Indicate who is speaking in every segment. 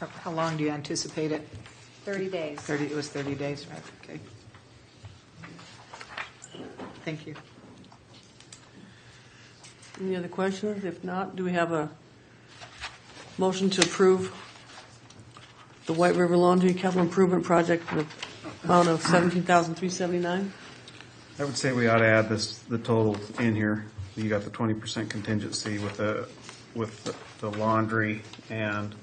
Speaker 1: How long do you anticipate it?
Speaker 2: 30 days.
Speaker 1: 30, it was 30 days, right? Okay. Thank you.
Speaker 3: Any other questions? If not, do we have a motion to approve the White River Laundry Capital Improvement Project for the amount of seventeen thousand three seventy-nine?
Speaker 4: I would say we ought to add this, the total in here. You got the twenty percent contingency with the, with the laundry and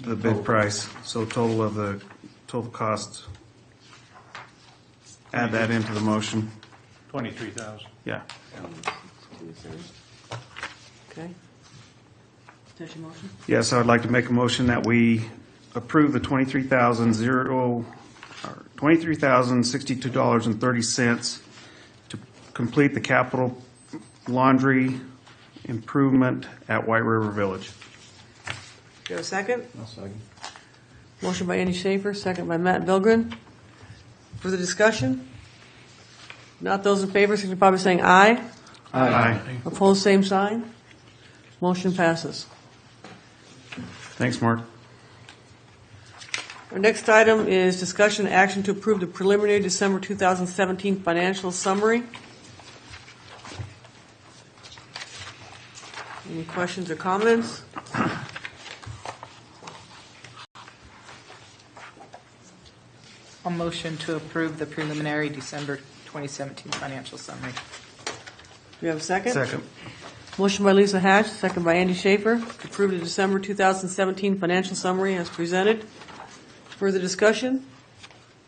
Speaker 4: the bid price. So total of the, total cost. Add that into the motion.
Speaker 5: 23,000.
Speaker 4: Yeah.
Speaker 3: Okay. There's your motion.
Speaker 4: Yeah, so I'd like to make a motion that we approve the twenty-three thousand zero, twenty-three thousand sixty-two dollars and thirty cents to complete the capital laundry improvement at White River Village.
Speaker 3: Do you have a second?
Speaker 5: I'll second.
Speaker 3: Motion by Andy Schaefer, second by Matt Belgren. Further discussion? Not those in favor, signify by saying aye.
Speaker 4: Aye.
Speaker 3: Opposed, same sign. Motion passes.
Speaker 4: Thanks, Mark.
Speaker 3: Our next item is discussion and action to approve the preliminary December 2017 financial summary. Any questions or comments?
Speaker 1: A motion to approve the preliminary December 2017 financial summary.
Speaker 3: Do we have a second?
Speaker 4: Second.
Speaker 3: Motion by Lisa Hatch, second by Andy Schaefer, to approve the December 2017 financial summary as presented. Further discussion?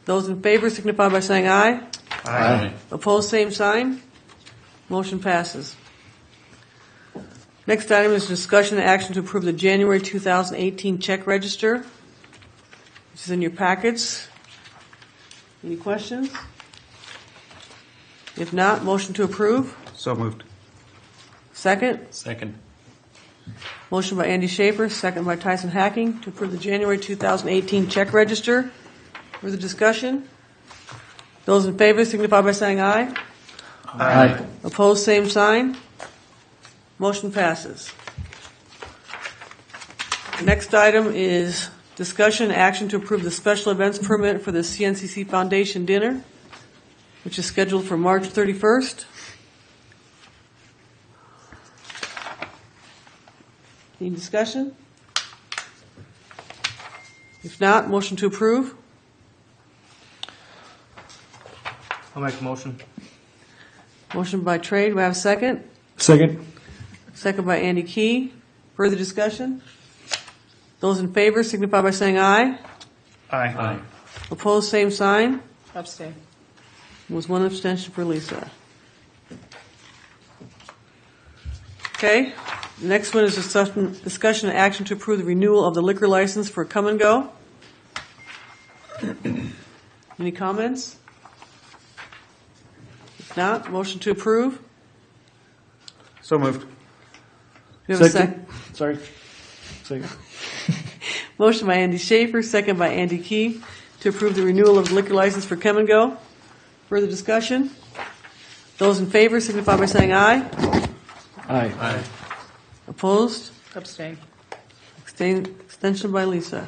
Speaker 3: Those in favor signify by saying aye.
Speaker 5: Aye.
Speaker 3: Opposed, same sign. Motion passes. Next item is discussion and action to approve the January 2018 check register, which is in your packets. Any questions? If not, motion to approve.
Speaker 4: So moved.
Speaker 3: Second,
Speaker 5: Second.
Speaker 3: motion by Andy Schaefer, second by Tyson Hacking, to approve the January 2018 check register. Further discussion? Those in favor signify by saying aye.
Speaker 5: Aye.
Speaker 3: Opposed, same sign. Motion passes. Next item is discussion, action to approve the special events permit for the CNCC Foundation Dinner, which is scheduled for March 31st. Any discussion? If not, motion to approve.
Speaker 6: I'll make a motion.
Speaker 3: Motion by Trey, do I have a second?
Speaker 6: Second.
Speaker 3: Second by Andy Key. Further discussion? Those in favor signify by saying aye.
Speaker 4: Aye.
Speaker 3: Opposed, same sign.
Speaker 1: Abstain.
Speaker 3: Was one abstention for Lisa. Okay, the next one is discussion, discussion and action to approve the renewal of the liquor license for Come and Go. Any comments? If not, motion to approve. Do
Speaker 4: So moved.
Speaker 3: we have a sec-
Speaker 6: Sorry. Second.
Speaker 3: Motion by Andy Schaefer, second by Andy Key, to approve the renewal of liquor license for Come and Go. Further discussion? Those in favor signify by saying aye.
Speaker 6: Aye.
Speaker 3: Opposed?
Speaker 1: Abstain.
Speaker 3: Abstain- Extension by Lisa.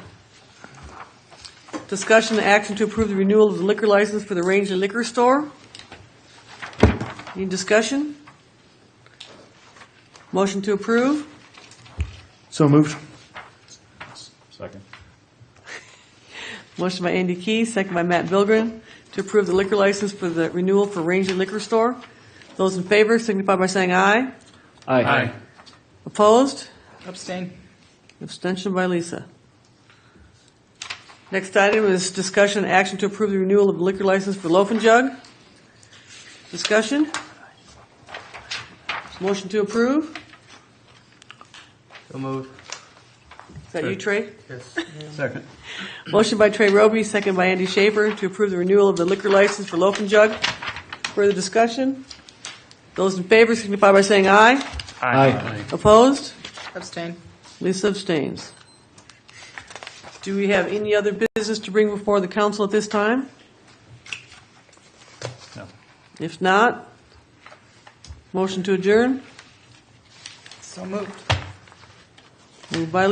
Speaker 3: Discussion and action to approve the renewal of the liquor license for the Ranger Liquor Store. Any discussion? Motion to approve?
Speaker 6: So moved.
Speaker 5: Second.
Speaker 3: Motion by Andy Key, second by Matt Bilgren, to approve the liquor license for the renewal for Ranger Liquor Store. Those in favor signify by saying aye.
Speaker 6: Aye.
Speaker 3: Opposed?
Speaker 1: Abstain.
Speaker 3: Abstention by Lisa. Next item is discussion and action to approve the renewal of liquor license for Loaf and Jug. Discussion? Motion to approve?
Speaker 6: So moved.
Speaker 3: Is that you, Trey?
Speaker 6: Yes.
Speaker 4: Second.
Speaker 3: Motion by Trey Roby, second by Andy Schaefer, to approve the renewal of the liquor license for Loaf and Jug. Further discussion? Those in favor signify by saying aye.
Speaker 6: Aye.
Speaker 3: Opposed?
Speaker 1: Abstain.
Speaker 3: Lisa abstains. Do we have any other business to bring before the council at this time?
Speaker 5: No.
Speaker 3: If not, motion to adjourn.
Speaker 1: So moved.
Speaker 3: Moved by